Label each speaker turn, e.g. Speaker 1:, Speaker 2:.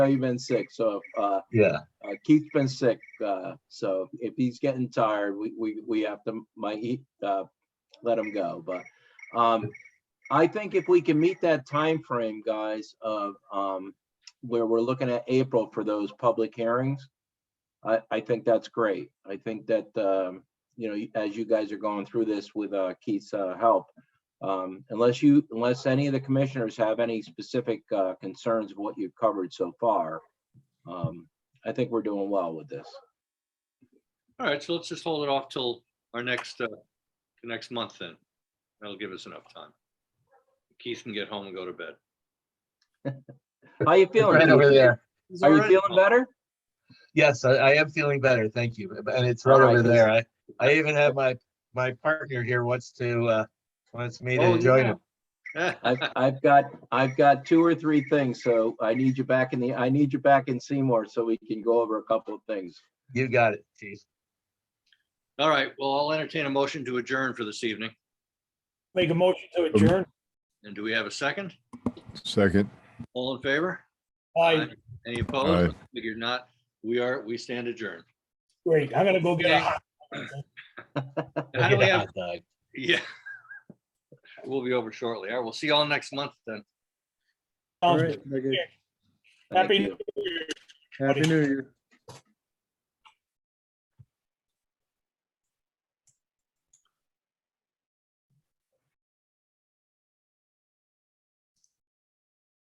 Speaker 1: know you've been sick, so uh,
Speaker 2: Yeah,
Speaker 1: uh, Keith's been sick, uh, so if he's getting tired, we, we, we have to, might, he- uh, let him go, but, um, I think if we can meet that time frame, guys, of, um, where we're looking at April for those public hearings, I, I think that's great. I think that, um, you know, as you guys are going through this with, uh, Keith's, uh, help, um, unless you, unless any of the commissioners have any specific, uh, concerns of what you've covered so far, um, I think we're doing well with this.
Speaker 3: All right, so let's just hold it off till our next, uh, the next month then. That'll give us enough time. Keith can get home and go to bed.
Speaker 1: How you
Speaker 2: right over
Speaker 1: feeling?
Speaker 2: there.
Speaker 3: He's
Speaker 1: Are you
Speaker 3: already
Speaker 1: feeling
Speaker 3: home.
Speaker 1: better?
Speaker 2: Yes, I, I am feeling better, thank you. And it's
Speaker 1: All
Speaker 2: right
Speaker 1: right.
Speaker 2: over there. I, I even have my, my partner here wants to, uh, wants me
Speaker 3: Oh,
Speaker 2: to join him.
Speaker 3: yeah.
Speaker 1: I've, I've got, I've got two or three things, so I need you back in the, I need you back in Seymour so we can go over a couple of things.
Speaker 2: You got it, chief.
Speaker 3: All right, well, I'll entertain a motion to adjourn for this evening.
Speaker 4: Make a motion to adjourn.
Speaker 3: And do we have a second?
Speaker 5: Second.
Speaker 3: All in favor?
Speaker 4: Aye,
Speaker 3: Any
Speaker 5: Aye.
Speaker 3: opposed? Figured not. We are, we stand adjourned.
Speaker 4: great. I'm gonna go get a hot.
Speaker 3: How do
Speaker 2: Get
Speaker 3: we
Speaker 2: a
Speaker 3: have,
Speaker 2: hot dog.
Speaker 3: yeah. We'll be over shortly. All right, we'll see y'all next month then.
Speaker 4: Sounds good.
Speaker 6: Very good.
Speaker 3: Thank
Speaker 4: Happy
Speaker 3: you.
Speaker 4: New Year.
Speaker 6: Happy New Year.